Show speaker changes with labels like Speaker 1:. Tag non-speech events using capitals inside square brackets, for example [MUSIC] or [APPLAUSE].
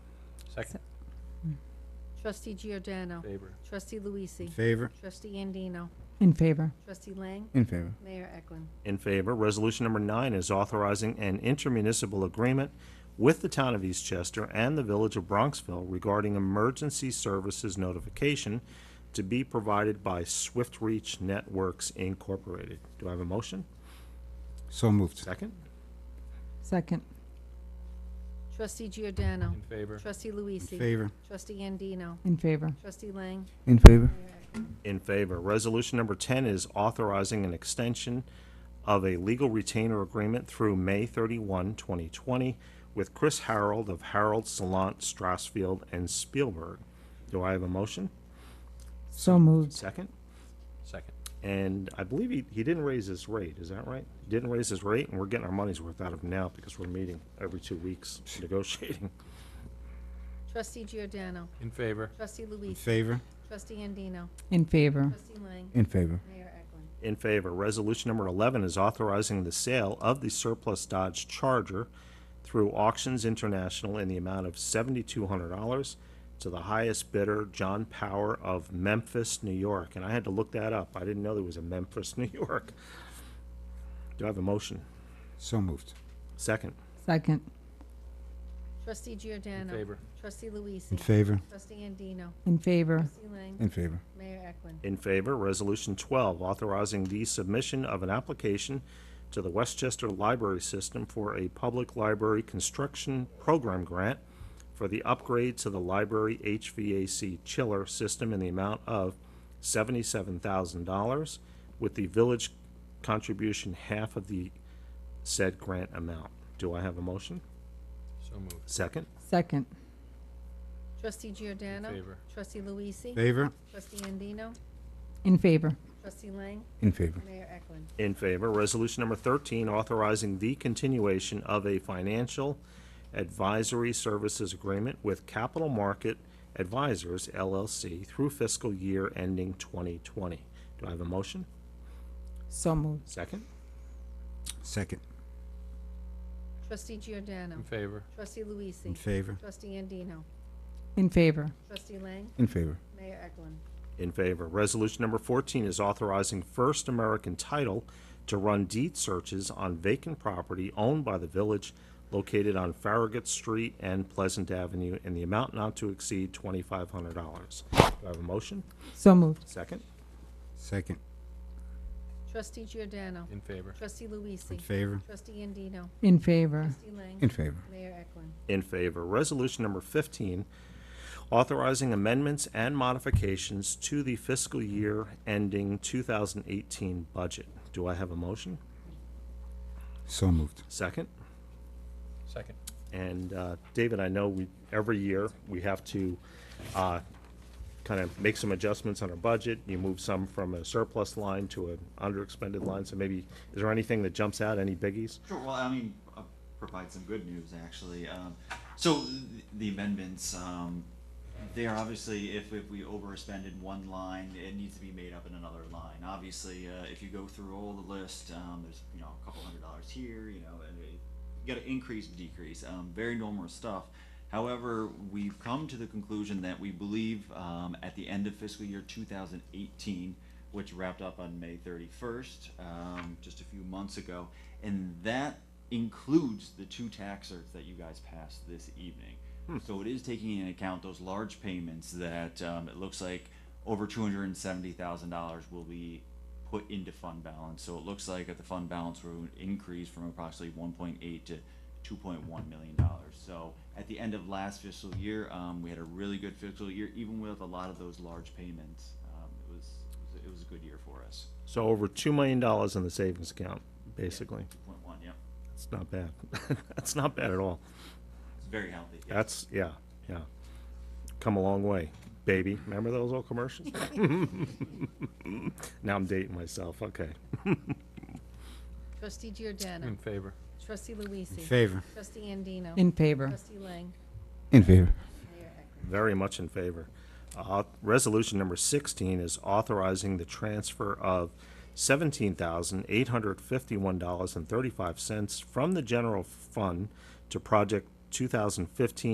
Speaker 1: Second
Speaker 2: Trustee Giordano.
Speaker 1: favor.
Speaker 2: Trustee Luisi.
Speaker 3: In favor?
Speaker 2: Trustee Andino.
Speaker 4: In favor.
Speaker 2: Trustee Lang.
Speaker 3: In favor.
Speaker 2: Mayor Eklund.
Speaker 5: In favor. Resolution number nine is authorizing an intermunicipal agreement with the town of Eastchester and the village of Bronxville regarding emergency services notification to be provided by Swift Reach Networks Incorporated. Do I have a motion?
Speaker 3: So moved.
Speaker 5: Second?
Speaker 4: Second.
Speaker 2: Trustee Giordano.
Speaker 1: In favor.
Speaker 2: Trustee Luisi.
Speaker 3: In favor?
Speaker 2: Trustee Andino.
Speaker 4: In favor.
Speaker 2: Trustee Lang.
Speaker 3: In favor.
Speaker 5: In favor. Resolution number 10 is authorizing an extension of a legal retainer agreement through May 31, 2020, with Chris Harold of Harold, Salant, Strassfield, and Spielberg. Do I have a motion?
Speaker 4: So moved.
Speaker 5: Second?
Speaker 1: Second.
Speaker 5: And I believe he, he didn't raise his rate, is that right? Didn't raise his rate, and we're getting our money's worth out of him now because we're meeting every two weeks negotiating.
Speaker 2: Trustee Giordano.
Speaker 1: In favor.
Speaker 2: Trustee
Speaker 3: In
Speaker 2: Luisi.
Speaker 3: favor?
Speaker 2: Trustee Andino.
Speaker 4: In favor.
Speaker 2: Trustee Lang.
Speaker 3: In favor.
Speaker 2: Mayor Eklund.
Speaker 5: In favor. Resolution number 11 is authorizing the sale of the surplus Dodge Charger through Auctions International in the amount of $7,200 to the highest bidder, John Power of Memphis, New York. And I had to look that up. I didn't know there was a Memphis, [LAUGHS] New York. Do I have a motion?
Speaker 3: So moved.
Speaker 5: Second.
Speaker 4: Second.
Speaker 2: Trustee
Speaker 1: In
Speaker 2: Giordano.
Speaker 1: favor.
Speaker 2: Trustee
Speaker 3: In
Speaker 2: Luisi.
Speaker 3: favor?
Speaker 2: Trustee Andino.
Speaker 4: In favor.
Speaker 2: Trustee Lang.
Speaker 3: In favor.
Speaker 2: Mayor Eklund.
Speaker 5: In favor. Resolution 12, authorizing the submission of an application to the Westchester Library System for a Public Library Construction Program Grant for the upgrade to the library HVAC chiller system in the amount of $77,000, with the village contribution half of the said grant amount. Do I have a motion?
Speaker 1: So moved.
Speaker 5: Second?
Speaker 4: Second.
Speaker 2: Trustee Giordano.
Speaker 1: favor.
Speaker 2: Trustee Luisi.
Speaker 3: Favor?
Speaker 2: Trustee Andino.
Speaker 4: In favor.
Speaker 2: Trustee Lang.
Speaker 3: In favor.
Speaker 2: Mayor Eklund.
Speaker 5: In favor. Resolution number 13, authorizing the continuation of a financial advisory services agreement with Capital Market Advisors LLC through fiscal year ending 2020. Do I have a motion?
Speaker 4: So moved.
Speaker 5: Second?
Speaker 3: Second.
Speaker 2: Trustee Giordano.
Speaker 1: In favor.
Speaker 2: Trustee
Speaker 3: In
Speaker 2: Luisi.
Speaker 3: favor?
Speaker 2: Trustee Andino.
Speaker 4: In favor.
Speaker 2: Trustee Lang.
Speaker 3: In favor.
Speaker 2: Mayor Eklund.
Speaker 5: In favor. Resolution number 14 is authorizing First American Title to run deed searches on vacant property owned by the village located on Farragut Street and Pleasant Avenue in the amount not to exceed $2,500. Do I have a motion?
Speaker 4: So moved.
Speaker 5: Second?
Speaker 3: Second.
Speaker 2: Trustee Giordano.
Speaker 1: In favor.
Speaker 2: Trustee
Speaker 3: In
Speaker 2: Luisi.
Speaker 3: favor?
Speaker 2: Trustee Andino.
Speaker 4: In favor.
Speaker 2: Trustee Lang.
Speaker 3: In favor.
Speaker 2: Mayor Eklund.
Speaker 5: in favor. Resolution number 15, authorizing amendments and modifications to the fiscal year ending 2018 budget. Do I have a motion?
Speaker 3: So moved.
Speaker 5: Second?
Speaker 1: Second.
Speaker 5: And uh, David, I know we, every year, we have to kind of make some adjustments on our budget. You move some from a surplus line to an underexpended line, so maybe, is there anything that jumps out, any biggies?
Speaker 6: Sure. Well, I mean, I'll provide some good news actually. Um, so th- the amendments, um, they are obviously if, if we overspend in one line, it needs to be made up in another line. Obviously, uh, if you go through all the list, um, there's you know a couple hundred dollars here, you know, and it, you got to increase, decrease, um, very normal stuff. However, we've come to the conclusion that we believe um, at the end of fiscal year 2018, which wrapped up on May 31st, um, just a few months ago, and that includes the two tax certs that you guys passed this evening. So it is taking into account those large payments that um, it looks like over $270,000 will be put into fund balance. So it looks like at the fund balance, we're going to increase from approximately one point eight to two point one million dollars. So at the end of last fiscal year, um, we had a really good fiscal year, even with a lot of those large payments. Um, it was, it was- it was a good year for us.
Speaker 5: So over $2 million in the savings account, basically.
Speaker 6: Two point one, yep.
Speaker 5: That's not bad. [LAUGHS] That's not bad at all.
Speaker 6: It's very healthy. yes.
Speaker 5: That's, yeah, yeah. Come a long way, baby. Remember those old commercials? [LAUGHS] Now I'm dating myself, okay.
Speaker 2: Trustee Giordano.
Speaker 1: In favor.
Speaker 2: Trustee Luisi.
Speaker 3: In favor?
Speaker 2: Trustee Andino.
Speaker 4: In favor.
Speaker 2: Trustee Lang.
Speaker 3: In favor.
Speaker 2: Mayor Eklund.
Speaker 5: Very much in favor. Uh, Resolution number 16 is authorizing the transfer of $17,851.35 from the general fund to project 2015